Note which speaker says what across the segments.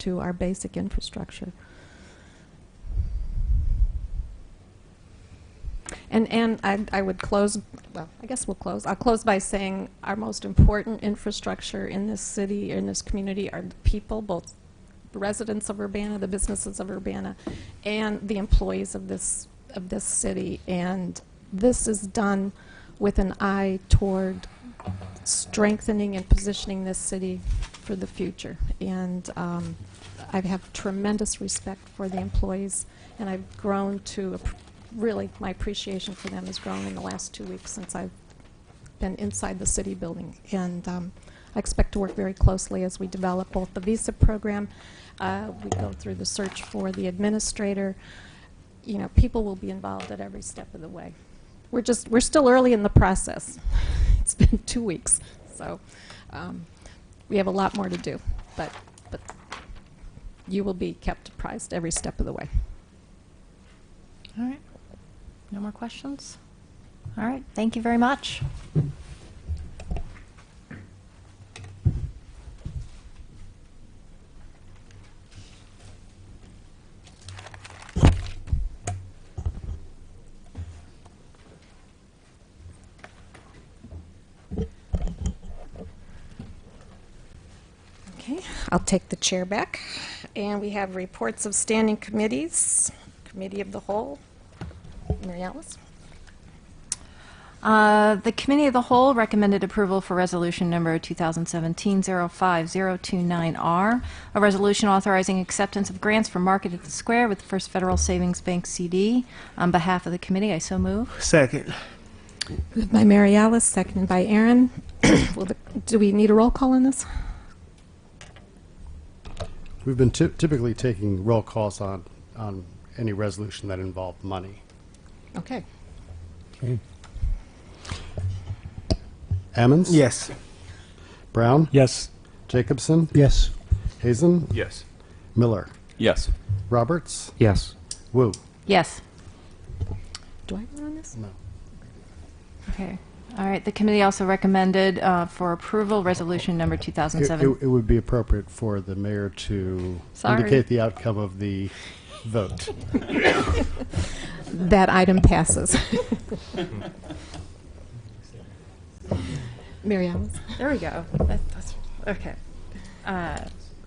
Speaker 1: to our basic infrastructure. And, and I, I would close, well, I guess we'll close. I'll close by saying our most important infrastructure in this city, in this community, are the people, both the residents of Urbana, the businesses of Urbana, and the employees of this, of this city. And this is done with an eye toward strengthening and positioning this city for the future. And um, I have tremendous respect for the employees, and I've grown to, app- really, my appreciation for them has grown in the last two weeks since I've been inside the city building. And um, I expect to work very closely as we develop both the visa program, uh, we go through the search for the administrator. You know, people will be involved at every step of the way. We're just, we're still early in the process. It's been two weeks, so um, we have a lot more to do, but, but you will be kept apprised every step of the way.
Speaker 2: All right. No more questions? All right. Thank you very much.
Speaker 1: Okay, I'll take the chair back. And we have reports of standing committees, Committee of the Whole. Mary Alice?
Speaker 2: Uh, The Committee of the Whole recommended approval for Resolution Number 2017-05029R, a resolution authorizing acceptance of grants for Market at the Square with First Federal Savings Bank CD. On behalf of the committee, I so move.
Speaker 3: Second.
Speaker 1: Moved by Mary Alice, seconded by Aaron. Will the- Do we need a roll call on this?
Speaker 4: We've been ty- typically taking roll calls on, on any resolution that involved money.
Speaker 1: Okay.
Speaker 4: Ammons?
Speaker 3: Yes.
Speaker 4: Brown?
Speaker 3: Yes.
Speaker 4: Jacobson?
Speaker 3: Yes.
Speaker 4: Hazen?
Speaker 5: Yes.
Speaker 4: Miller?
Speaker 5: Yes.
Speaker 4: Roberts?
Speaker 3: Yes.
Speaker 4: Wu?
Speaker 2: Yes.
Speaker 1: Do I vote on this?
Speaker 4: No.
Speaker 2: Okay. All right. The committee also recommended uh, for approval Resolution Number
Speaker 4: It,
Speaker 2: 2017.
Speaker 4: it, it would be appropriate for the mayor to
Speaker 2: Sorry.
Speaker 4: indicate the outcome of the vote.
Speaker 1: That item passes. Mary Alice?
Speaker 2: There we go. That- that's- Okay. Uh,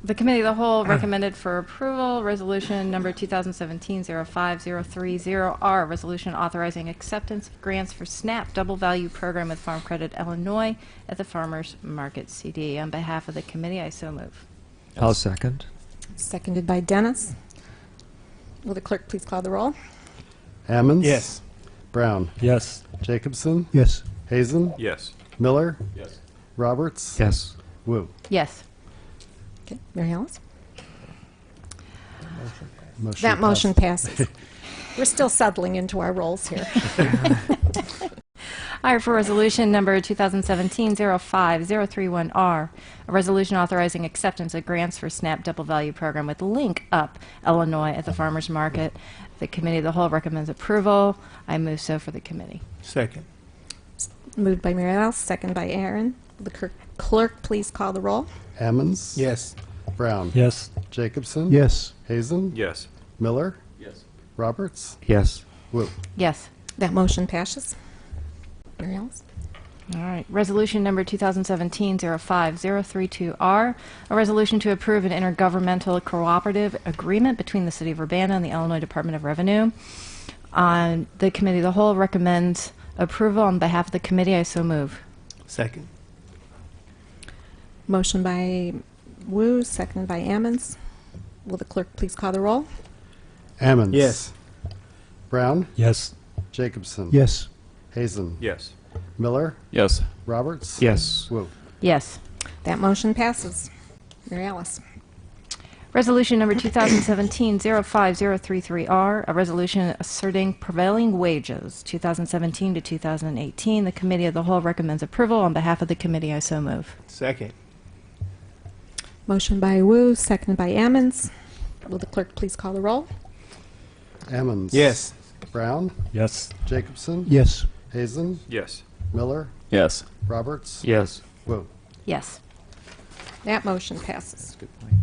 Speaker 2: The Committee of the Whole recommended for approval, Resolution Number 2017-05030R, Resolution Authorizing Acceptance of Grants for SNAP Double Value Program with Farm Credit Illinois at the Farmers Market CD. On behalf of the committee, I so move.
Speaker 3: I'll second.
Speaker 1: Seconded by Dennis. Will the clerk please call the roll?
Speaker 4: Ammons?
Speaker 3: Yes.
Speaker 4: Brown?
Speaker 3: Yes.
Speaker 4: Jacobson?
Speaker 3: Yes.
Speaker 4: Hazen?
Speaker 5: Yes.
Speaker 4: Miller?
Speaker 5: Yes.
Speaker 4: Roberts?
Speaker 3: Yes.
Speaker 4: Wu?
Speaker 2: Yes.
Speaker 1: Okay, Mary Alice?
Speaker 4: Motion
Speaker 1: That
Speaker 4: passed.
Speaker 1: motion passes. We're still settling into our roles here.
Speaker 2: All right, for resolution number 2017-05031R, a resolution authorizing acceptance of grants for SNAP Double Value Program with Link Up Illinois at the Farmers Market. The Committee of the Whole recommends approval. I move so for the committee.
Speaker 3: Second.
Speaker 1: Moved by Mary Alice, second by Aaron. Will the clerk- clerk please call the roll?
Speaker 4: Ammons?
Speaker 3: Yes.
Speaker 4: Brown?
Speaker 3: Yes.
Speaker 4: Jacobson?
Speaker 3: Yes.
Speaker 4: Hazen?
Speaker 5: Yes.
Speaker 4: Miller?
Speaker 5: Yes.
Speaker 4: Roberts?
Speaker 3: Yes.
Speaker 4: Wu?
Speaker 2: Yes.
Speaker 1: That motion passes. Mary Alice?
Speaker 2: All right. Resolution number 2017-05032R, a resolution to approve an intergovernmental cooperative agreement between the City of Urbana and the Illinois Department of Revenue. On the Committee of the Whole recommends approval. On behalf of the committee, I so move.
Speaker 3: Second.
Speaker 1: Motion by Wu, second by Ammons. Will the clerk please call the roll?
Speaker 4: Ammons?
Speaker 3: Yes.
Speaker 4: Brown?
Speaker 3: Yes.
Speaker 4: Jacobson?
Speaker 3: Yes.
Speaker 4: Hazen?
Speaker 5: Yes.
Speaker 4: Miller?
Speaker 5: Yes.
Speaker 4: Roberts?
Speaker 3: Yes.
Speaker 4: Wu?
Speaker 2: Yes.
Speaker 1: That motion passes. Mary Alice?
Speaker 2: Resolution number 2017-05033R, a resolution asserting prevailing wages, 2017 to 2018. The Committee of the Whole recommends approval. On behalf of the committee, I so move.
Speaker 3: Second.
Speaker 1: Motion by Wu, second by Ammons. Will the clerk please call the roll?
Speaker 4: Ammons? Brown?
Speaker 3: Yes.
Speaker 4: Jacobson?
Speaker 3: Yes.
Speaker 4: Hazen?
Speaker 5: Yes.
Speaker 4: Miller?
Speaker 5: Yes.
Speaker 4: Roberts?
Speaker 3: Yes.
Speaker 4: Wu?
Speaker 2: Yes.
Speaker 1: That motion passes.
Speaker 5: Good point.